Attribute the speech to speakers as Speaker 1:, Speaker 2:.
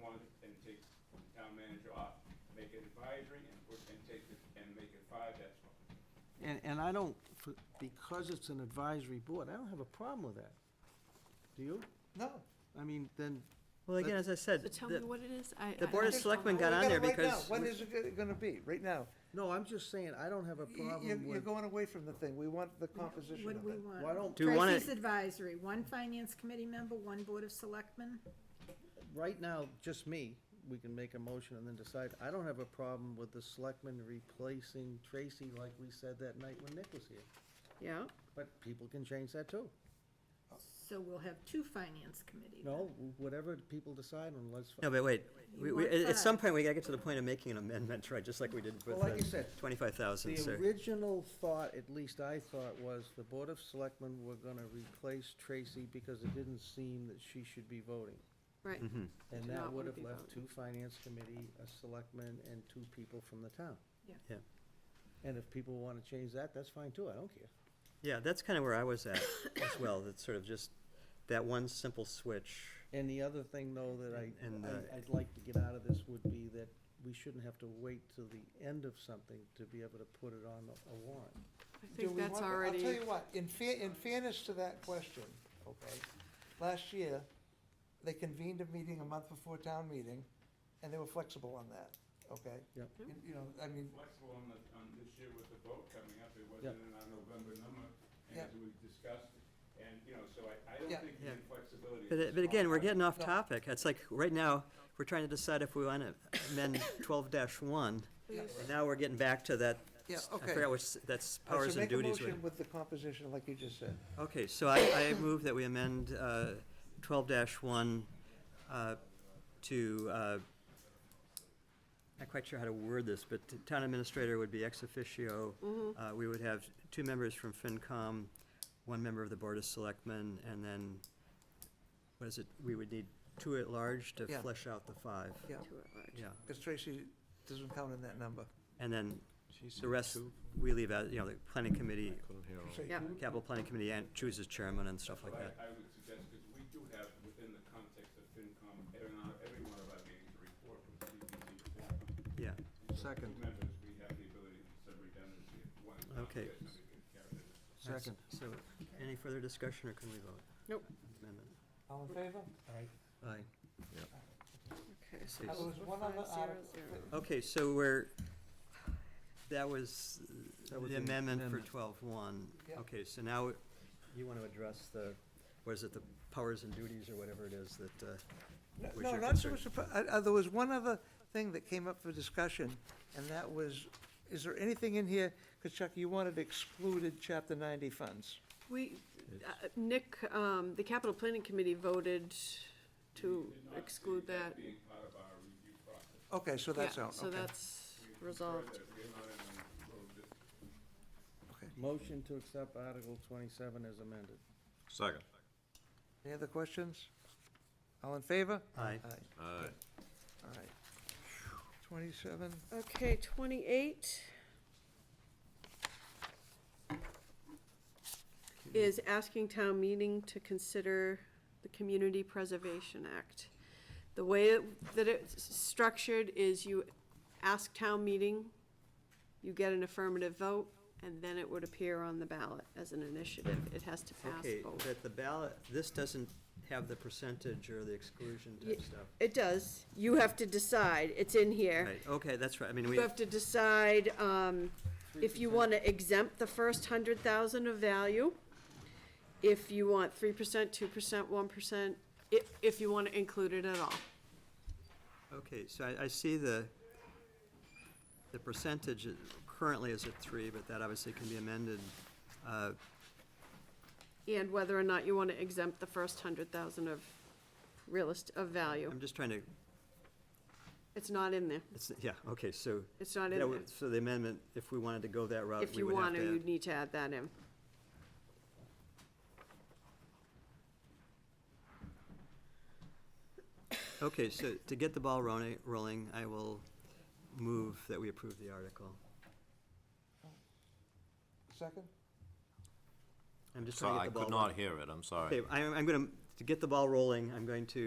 Speaker 1: dollars and take the town manager off. Make it advisory and put, and take it, and make it five, that's all.
Speaker 2: And, and I don't, f- because it's an advisory board, I don't have a problem with that. Do you?
Speaker 3: No.
Speaker 2: I mean, then,
Speaker 4: Well, again, as I said,
Speaker 5: So tell me
Speaker 4: the
Speaker 5: what it is. I-
Speaker 4: the
Speaker 5: I-
Speaker 4: Board of
Speaker 5: I-
Speaker 4: Selectmen got
Speaker 3: Well,
Speaker 4: on
Speaker 3: we
Speaker 4: there
Speaker 3: gotta- right now,
Speaker 4: because,
Speaker 3: What is it go- gonna be, right now?
Speaker 2: no, I'm just saying, I don't have a
Speaker 3: y- y- You're,
Speaker 2: problem
Speaker 3: you're
Speaker 2: with,
Speaker 3: going away from the thing, we want the composition
Speaker 6: What
Speaker 3: of
Speaker 6: do we
Speaker 3: it.
Speaker 6: want?
Speaker 2: why don't,
Speaker 4: Do you wanna-
Speaker 6: Trustees advisory, one finance committee member, one board of selectmen.
Speaker 2: right now, just me, we can make a motion and then decide. I don't have a problem with the selectmen replacing Tracy like we said that night when Nick was here.
Speaker 6: Yeah.
Speaker 2: But people can change that too.
Speaker 6: So we'll have two finance committees.
Speaker 2: No, whatever people decide on, let's.
Speaker 4: no, but wait, we,
Speaker 6: You
Speaker 4: we,
Speaker 6: want
Speaker 4: at at some
Speaker 6: five.
Speaker 4: point, we gotta get to the point of making an amendment, right, just like we did
Speaker 2: Well, like you
Speaker 4: with the
Speaker 2: said,
Speaker 4: twenty-five thousand,
Speaker 2: The
Speaker 4: so.
Speaker 2: original thought, at least I thought, was the Board of Selectmen were gonna replace Tracy because it didn't seem that she should be voting.
Speaker 5: Right.
Speaker 4: Mm-hmm.
Speaker 2: And
Speaker 5: Did
Speaker 2: that
Speaker 5: not
Speaker 2: would
Speaker 5: wanna
Speaker 2: have
Speaker 5: be
Speaker 2: left
Speaker 5: voting.
Speaker 2: two finance committee, a selectman, and two people from the town.
Speaker 6: Yeah.
Speaker 4: Yeah.
Speaker 2: And if people wanna change that, that's fine too, I don't care.
Speaker 4: Yeah, that's kinda where I was at as well, that's sort of just that one simple switch.
Speaker 2: And the other thing, though, that I,
Speaker 4: And, uh,
Speaker 2: I- I'd like to get out of this would be that we shouldn't have to wait till the end of something to be able to put it on a warrant.
Speaker 5: I
Speaker 3: Do
Speaker 5: think
Speaker 3: we
Speaker 5: that's
Speaker 3: want- I'll tell you
Speaker 5: already,
Speaker 3: what, in fair, in fairness to that question, okay, last year, they convened a meeting a month before town meeting, and they were flexible on that, okay?
Speaker 2: Yep.
Speaker 3: You you know, I mean,
Speaker 1: Flexible on the, on this year with the vote coming up, it wasn't in our November number, and
Speaker 3: Yeah.
Speaker 1: as we discussed. And, you know, so I, I don't
Speaker 3: Yeah.
Speaker 1: think
Speaker 4: Yeah.
Speaker 1: the flexibility.
Speaker 4: But,
Speaker 1: is
Speaker 4: uh, but again, we're
Speaker 1: small.
Speaker 4: getting off
Speaker 3: No.
Speaker 4: topic, it's like, right now, we're trying to decide if we wanna amend twelve one,
Speaker 3: yeah,
Speaker 4: and now we're getting back to that,
Speaker 3: yeah,
Speaker 4: I
Speaker 3: okay.
Speaker 4: forgot which, that's
Speaker 3: All right,
Speaker 4: powers
Speaker 3: so
Speaker 4: and
Speaker 3: Make
Speaker 4: duties.
Speaker 3: a
Speaker 4: with-
Speaker 3: motion with the composition like you just said.
Speaker 4: Okay, so I, I move that we amend uh, twelve one uh, to, uh, not quite sure how to word this, but the town administrator would be ex officio. Uh, We would have two members from FinCom, one member of the Board of Selectmen, and then, what is it, we would need two at large to
Speaker 3: Yeah.
Speaker 4: flesh out the five.
Speaker 3: Yeah,
Speaker 4: Yeah,
Speaker 3: because Tracy doesn't count in that number.
Speaker 4: and then the rest, we leave out, you know, the planning committee,
Speaker 3: Tracy,
Speaker 5: Yeah.
Speaker 3: who-
Speaker 4: capital planning committee and chooses chairman and stuff like
Speaker 1: But I-
Speaker 4: that.
Speaker 1: I would suggest, because we do have, within the context of FinCom, every one- every one of our meetings, a report from CPC. FinCom.
Speaker 4: Yeah,
Speaker 1: So
Speaker 2: Second.
Speaker 1: Two members, we have the ability to sub redundancy if one. is not
Speaker 4: Okay.
Speaker 1: there, somebody can carry it.
Speaker 2: Second.
Speaker 4: So, any further discussion, or can we vote?
Speaker 5: Nope.
Speaker 4: Amendment.
Speaker 3: All in favor?
Speaker 2: Aye.
Speaker 5: okay, so
Speaker 4: Please.
Speaker 3: Uh, there was one other
Speaker 5: Five, zero,
Speaker 3: article-
Speaker 5: zero.
Speaker 4: Okay, so we're, that was the
Speaker 2: That was the
Speaker 4: amendment for
Speaker 2: amendment.
Speaker 4: twelve-one.
Speaker 3: Yeah.
Speaker 4: Okay, so now, you want to address the, what is it, the powers and duties, or whatever it is that, uh,
Speaker 3: No,
Speaker 4: was
Speaker 3: no,
Speaker 4: your
Speaker 3: not so
Speaker 4: concern?
Speaker 3: much, the pro- uh, uh, there was one other thing that came up for discussion, and that was, is there anything in here, because Chuck, you wanted excluded Chapter 90 funds.
Speaker 5: We, uh, Nick, um, the Capital Planning Committee voted
Speaker 1: We
Speaker 5: to
Speaker 1: did not see
Speaker 5: exclude that.
Speaker 1: Being part of our review process.
Speaker 3: Okay, so that's
Speaker 5: Yeah,
Speaker 3: out,
Speaker 5: So
Speaker 3: okay.
Speaker 5: that's
Speaker 1: We prefer
Speaker 5: resolved.
Speaker 1: that We're not in a little dis-
Speaker 2: Motion to accept Article twenty-seven as amended.
Speaker 7: Second.
Speaker 3: Any other questions? All in favor?
Speaker 4: Aye.
Speaker 7: Aye.
Speaker 3: All right. 27,
Speaker 5: Okay, twenty-eight is asking town meeting to consider the Community Preservation Act. The way it- that it's structured is you ask town meeting, you get an affirmative vote, and then it would appear on the ballot as an initiative. It has to pass
Speaker 4: Okay,
Speaker 5: both.
Speaker 4: that the ballot, this doesn't have the percentage or the exclusion
Speaker 5: Ye-
Speaker 4: type stuff.
Speaker 5: It does. You have to decide. It's in here.
Speaker 4: Right, okay, that's right, I mean, we,
Speaker 5: You have to decide um, if you want to exempt the first 100,000 of value, if you want 3%, 2%, 1%, i- if you want to include it at all.
Speaker 4: okay, so I, I see the, the percentage is- currently is at three, but that obviously can be amended. Uh,
Speaker 5: And whether or not you want to exempt the first 100,000 of real estate, of value.
Speaker 4: I'm just trying to,
Speaker 5: It's not in there.
Speaker 4: it's, yeah, okay, so.
Speaker 5: It's not in
Speaker 4: That
Speaker 5: there.
Speaker 4: would- So the amendment, if we wanted to go that route,
Speaker 5: If
Speaker 4: we
Speaker 5: you
Speaker 4: would have
Speaker 5: want to,
Speaker 4: to.
Speaker 5: you'd need to add that in.
Speaker 4: Okay, so to get the ball rolling, rolling, I will move that we approve the article.
Speaker 3: second?
Speaker 4: I'm just
Speaker 7: So
Speaker 4: trying to
Speaker 7: I
Speaker 4: get the ball.
Speaker 7: could not
Speaker 4: rolling.
Speaker 7: hear it, I'm sorry.
Speaker 4: Okay, I'm, I'm going to, to get the ball rolling, I'm going to